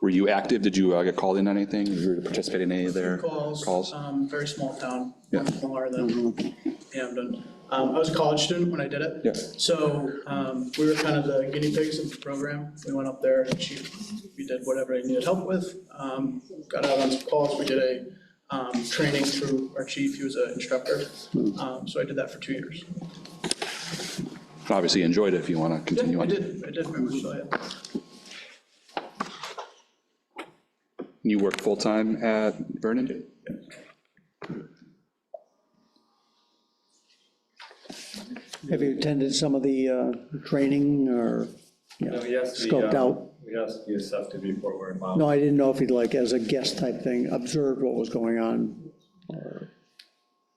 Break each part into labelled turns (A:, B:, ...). A: Were you active? Did you uh, get called in on anything? Did you participate in any of their
B: Calls,
A: calls?
B: um, very small town,
A: Yeah.
B: smaller than Hamden. Um, I was a college student when I did it.
A: Yeah.
B: So, um, we were kind of the guinea pigs of the program. We went up there and she, we did whatever I needed help with. Um, got out on some calls. We did a, um, training through our chief. He was an instructor. Um, so I did that for two years.
A: Obviously enjoyed it if you want to
B: Yeah,
A: continue
B: I
A: on.
B: did, Mm-hmm. I did very much so, yeah.
A: You worked full-time at Vernon?
C: Have you attended some of the uh, training or, you know,
D: No, yes, we,
C: scoped
D: uh,
C: out?
D: We asked Youssef to be Fort Worth involved.
C: No, I didn't know if he'd like, as a guest type thing, observed what was going on, or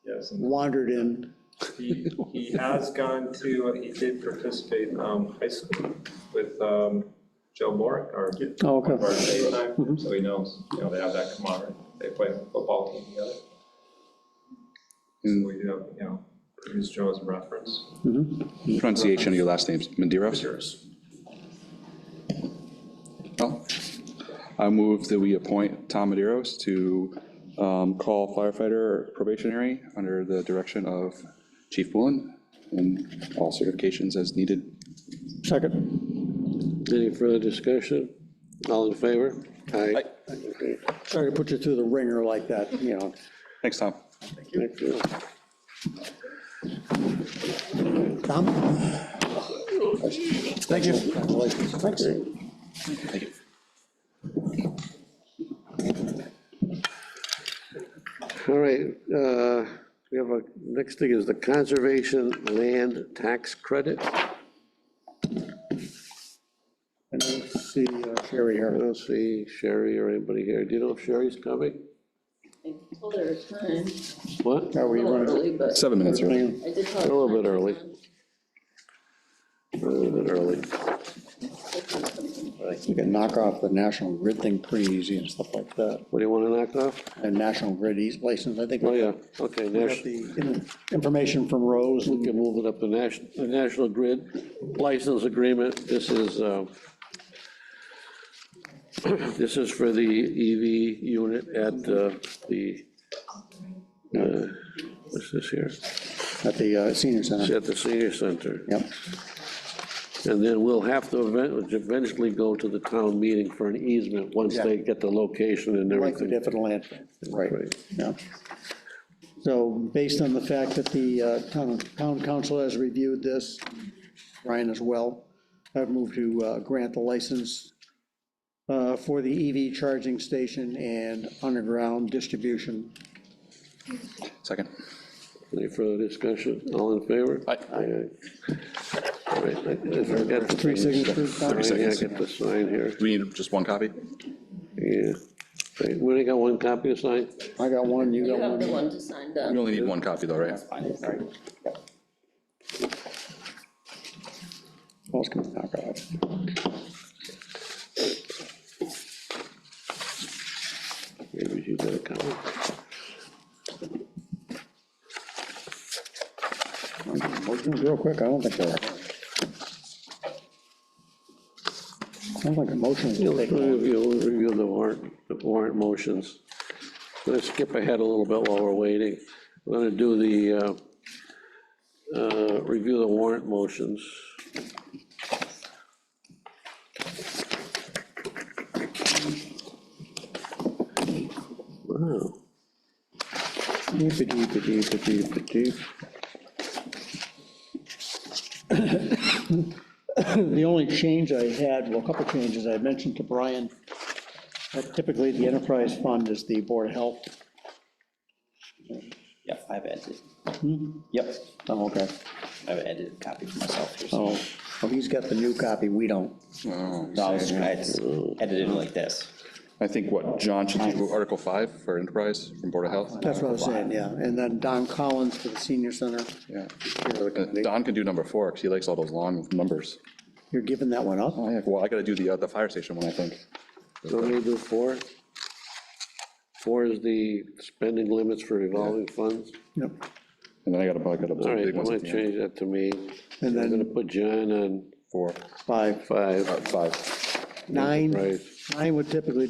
D: Yes, and
C: wandered in.
D: he, he has gone to, uh, he did participate in um, high school with um, Joe Morick, or
C: Oh,
D: one of our
C: okay. Mm-hmm.
D: time, so he knows, you know, they have that camaraderie. They play football team together. So we do have, you know, use Joe as a reference.
A: Pronunciation of your last names, Maderos?
D: Yours.
A: No. I move that we appoint Tom Maderos to um, call firefighter probationary under the direction of Chief Bullen and all certifications as needed.
C: Second.
E: Any further discussion? All in favor? Aye. Okay,
C: Sorry to put you through the ringer like that, you know.
A: Thanks, Tom.
E: thank you.
C: Tom? Thank you. Thanks.
E: All right, uh, we have a, next thing is the conservation land tax credit. I
C: And we'll see uh, Sherry here.
E: don't see Sherry or anybody here. Do you know if Sherry's coming?
F: I told her it's time,
E: What?
C: Are
F: a
C: we
F: little
C: running?
F: early, but
A: Seven minutes early.
F: I did tell her.
E: A little bit early.
F: time.
E: A little bit early.
C: You can knock off the National Grid thing pretty easy and stuff like that.
E: What do you want to knock off?
C: And National Grid eas- license, I think.
E: Oh,
C: we
E: yeah, okay,
C: got
E: national,
C: the in- information from Rose.
E: we can move it up to national, the national grid license agreement. This is, uh, this is for the EV unit at uh, the, uh, what's this here?
C: at the uh, senior
E: It's
C: center.
E: at the senior center.
C: Yep.
E: And then we'll have to event- eventually go to the town meeting for an easement once
C: Yeah.
E: they get the location and
C: Likely
E: everything.
C: to have a land, right,
E: Right.
C: yeah. So based on the fact that the uh, town, town council has reviewed this, Ryan as well, I've moved to uh, grant the license uh, for the EV charging station and underground distribution.
A: Second.
E: Any further discussion? All in favor?
A: Aye.
E: aye. All right, I- I forgot to.
C: Three signatures, Tom?
E: Sign here, I
A: seconds.
E: get the sign here,
A: Do we need just one copy?
E: yeah. Wait, We only got one copy to sign?
C: I got one, you
F: You
C: got
F: have the
C: one.
F: one to sign down.
A: We only need one copy though, right?
C: Who else can knock off?
E: Maybe you got a copy.
C: Motions real quick, I don't think there are. Sounds like a motion.
E: You'll
C: to take one.
E: review, we'll review the warrant, the warrant motions. I'm gonna skip ahead a little bit while we're waiting. I'm gonna do the, uh, uh, review the warrant motions. Wow.
C: Deep-a-deep-a-deep-a-deep-a-deep. The only change I had, well, a couple changes I mentioned to Brian, that typically the enterprise fund is the Board of Health.
G: Yep, I've edited. Yep,
C: Oh, okay.
G: I've edited a copy for myself here. so-
C: Oh, well, he's got the new copy, we don't.
A: Oh,
G: No, I was- I it's edited like this.
A: I think what, John should do Article 5 for enterprise from Board of Health?
C: That's what I was saying, yeah. And then Don Collins for the senior center.
A: Yeah. Uh, Don can do number four because he likes all those long numbers.
C: You're giving that one up?
A: Oh, yeah, well, I gotta do the, uh, the fire station one, I think.
E: So we do four? Four is the spending limits for revolving funds.
C: Yep.
A: And then I gotta, I gotta.
E: All right,
A: big
E: I'm
A: ones
E: gonna
A: at the end.
E: change that to me. I'm
C: And
E: gonna
C: then
E: put John on
A: Four,
C: five,
E: five,
A: uh, five.
C: nine,
E: right?
C: I would typically